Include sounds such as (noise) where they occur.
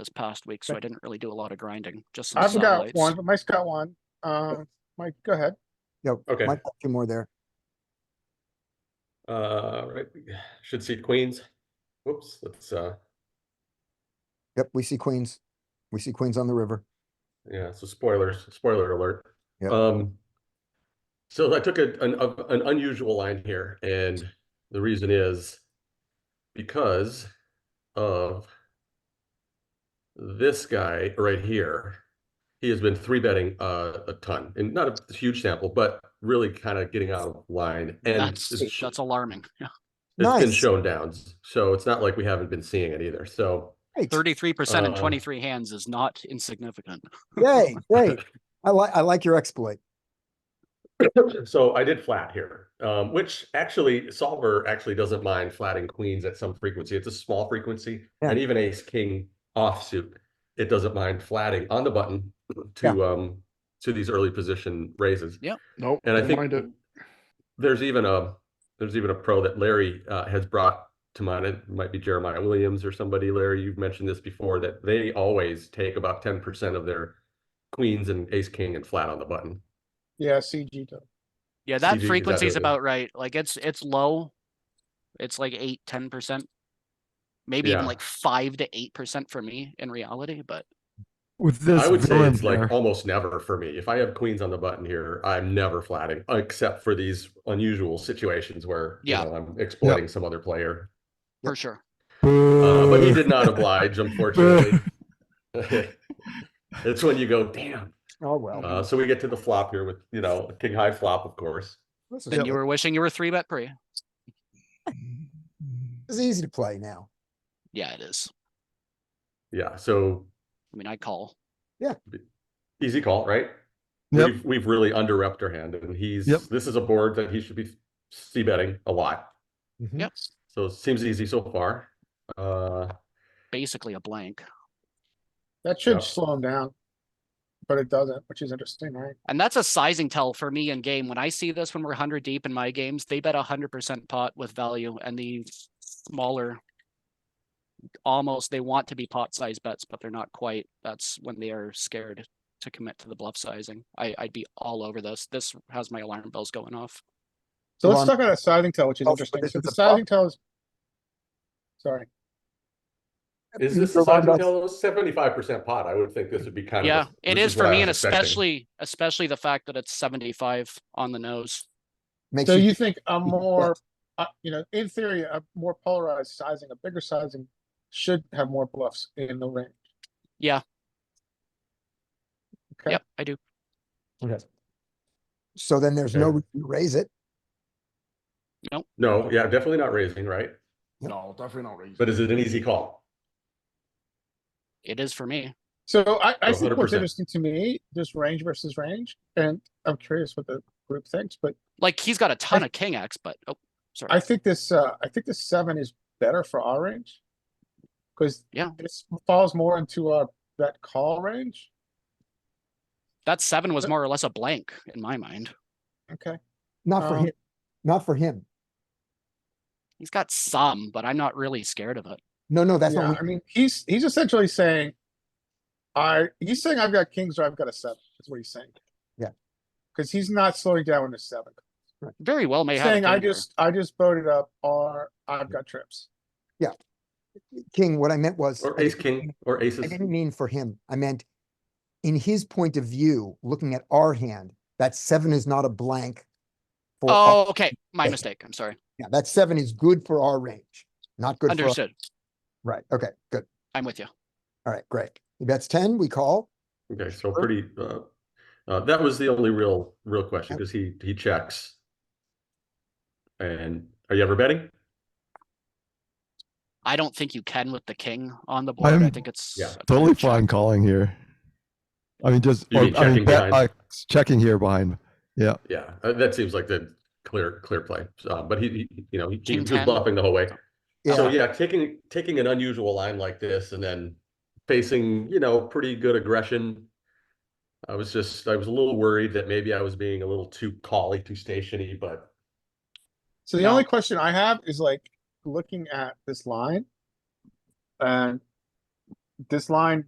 this past week, so I didn't really do a lot of grinding, just some I've got satellites. one, but Mike's got one. Um, Mike, go ahead. Yep. Okay. Might have two more there. Uh, right, we (sighs) should see queens. Whoops, that's, uh, Yep, we see queens. We see queens on the river. yeah, so spoilers, spoiler alert. Yep. Um, so I took a, an, of- an unusual line here, and the reason is because of this guy right here. He has been three betting, uh, a ton, and not a huge sample, but really kind of getting out of line and That's, it's- that's alarming. Yeah. it's been Nice. shown downs, so it's not like we haven't been seeing it either, so. Great. Thirty-three percent in Uh, twenty-three hands is not insignificant. (laughs) Yay, (laughs) great. I like, I like your exploit. So I did flat here, um, which actually solver actually doesn't mind flatting queens at some frequency. It's a small frequency Yeah. and even ace king offsuit. It doesn't mind flatting on the button to, um, to these early position raises. Nope. And I don't think- mind it. There's even a, there's even a pro that Larry, uh, has brought to mind. It might be Jeremiah Williams or somebody. Larry, you've mentioned this before, that they always take about ten percent of their queens and ace king and flat on the button. Yeah, CG does. Yeah, that CG is frequency is adequate. about right. Like it's, it's low. It's like eight, ten percent. Maybe even Yeah. like five to eight percent for me in reality, but with this I would say villain it's there. like almost never for me. If I have queens on the button here, I'm never flatting, except for these unusual situations where you Yeah. know, I'm exploiting some other player. for sure. Uh, but he Boo. did (laughs) not oblige, unfortunately. It's when you go, damn. Oh, well. Uh, so we get to the flop here with you know king high flop, of course. This is Then you good. were wishing you were three bet pre. This is easy to play now. Yeah, it is. Yeah, so I mean, I call. easy call, right? Yep. We've we've really underrepped our hand, and he's Yep. this is a board that he should be c betting a lot. Mm-hmm. Mhm. Yep. So it seems easy so far. Uh, Basically a blank. That Yeah. should slow him down. But it doesn't, which is interesting, right? And that's a sizing tell for me in game. When I see this, when we're hundred deep in my games, they bet hundred percent pot with value and the smaller. Almost, they want to be pot size bets, but they're not quite. That's when they are scared to commit to the bluff sizing. I, I'd be all over this. This has my alarm bells going off. So Ron- let's talk about a sizing tell, which is Oh, interesting. this So is the the problem. sizing tell is. Sorry, Is Mr. this a size Rondo- tell seventy-five percent pot? I would think this would be kind of. Yeah, it this is what for I me was and expecting. especially, especially the fact that it's seventy-five on the nose. Makes so you- you think a bet. more, uh, you know, in theory, a more polarized sizing, a bigger sizing should have more bluffs in the range. Yeah. Okay. Yep, I do. So then there's no Okay. reason to raise it. No, yeah, definitely not raising, right? No, definitely not raising. But is it an easy call? It is for me. So I, I Oh, think what's 100%. interesting to me, just range versus range, and I'm curious what the group thinks, but Like, he's got a ton of king X, but, oh, sorry. I think this, uh, I think this seven is better for our range. Cause Yeah. this falls more into our that call range. That seven was more or less a blank in my mind. Okay, Not for Um, him. Not for him. He's got some, but I'm not really scared of it. No, no, that's yeah, not. I what- mean, he's, he's essentially saying, I, he's saying I've got kings or I've got a seven, is what he's saying. Yeah. Cause he's not slowing down when there's seven. Very well may have. a Saying I king here. just, I just voted up or I've got trips. King, what I meant was. Or I ace didn't king mean- or I aces? didn't mean for him. I meant in his point of view, looking at our hand, that seven is not a blank. for our- Oh, okay. My Yeah. mistake. I'm sorry. Yeah, that seven is good for our range, not good for, Understood. right, okay, good, I'm with you. all right, great. He bets ten, we call, Okay, so pretty, uh, uh, that was the only real, real question, because he, he checks. And are you ever betting? I don't think you can with the king on the board. I I'm- think it's. Yeah. a totally bad shot. fine calling here. I mean, just You mean I checking mean, bet, behind? uh, checking here behind. Yeah, uh, that seems like the clear, clear play. Uh, but he, he- you know, he he King was 10. bluffing the whole way. So yeah, yeah, taking taking an unusual line like this and then facing, you know, pretty good aggression. I was just I was a little worried that maybe I was being a little too collie, too stationy, but So the No. only question I have is like looking at this line. And this line